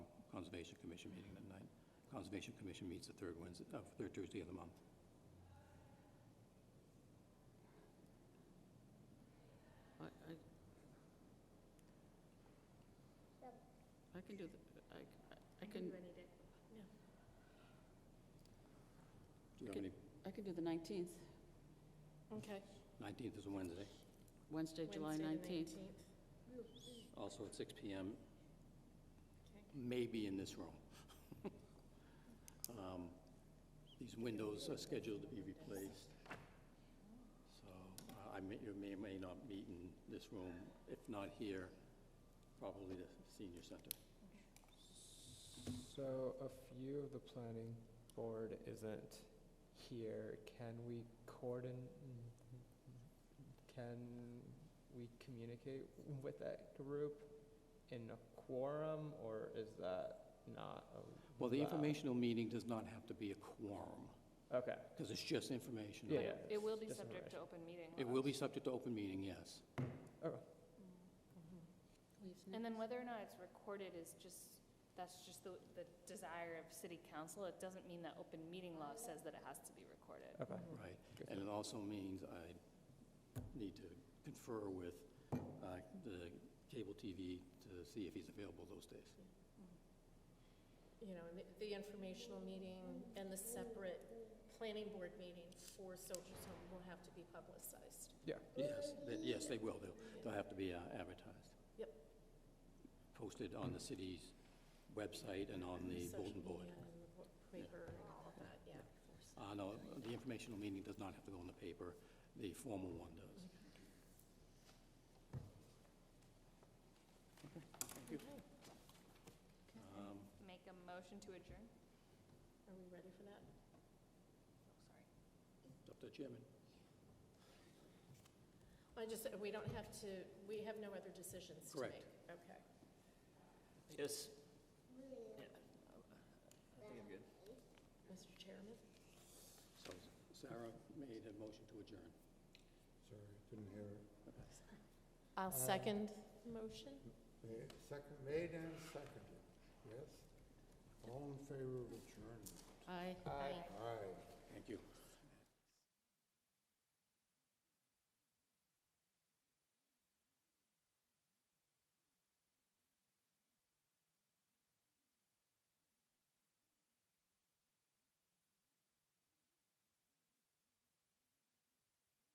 Conservation Commission meeting that night. Conservation Commission meets the third Wednesday, uh, third Tuesday of the month. I, I. I can do the, I, c- I can, any day. Do you have any, I can do the 19th, Okay. 19th is a Wednesday, Wednesday, July Wednesday, the 19th. 19th. also at six PM, Okay. maybe in this room. Um, These windows are scheduled to be replaced, so uh, I may, you may, may not meet in this room, if not here, probably the senior center. So a few of the planning board isn't here. Can we coordin, can we communicate with that group in a quorum, or is that not allowed? Well, the informational meeting does not have to be a quorum, Okay, because it's just information. yeah, yeah. It will be just subject to open information. meeting It will be laws. subject to open meeting, yes. Oh, And then whether or not it's recorded is just, that's just the, the desire of city council. It doesn't mean that open meeting law says that it has to be recorded. okay. Right, Good. and it also means I need to confer with uh, the cable TV to see if he's available those days. you know, and the- the informational meeting and the separate planning board meeting for Soldiers Home will have to be publicized. Yes, they- yes, they will, they'll, they'll have to be uh, advertised. Yep. Posted on the city's website and on the Social bulletin board. media and the bo- Paper and all of that, yeah. Uh, no, the informational meeting does not have to go in the paper, the formal one does. Thank you. Okay. Um, Make a motion to adjourn? Oh, Are we ready for that? It's up to the chairman. I just, uh, we don't have to, we have no other decisions to Correct. make. Okay. Yes. Mr. Chairman? So Sarah made a motion to adjourn. Sorry, didn't hear it. I'll second motion. Ma- Second, made and seconded, yes? All in favor of adjournment? I. Aye.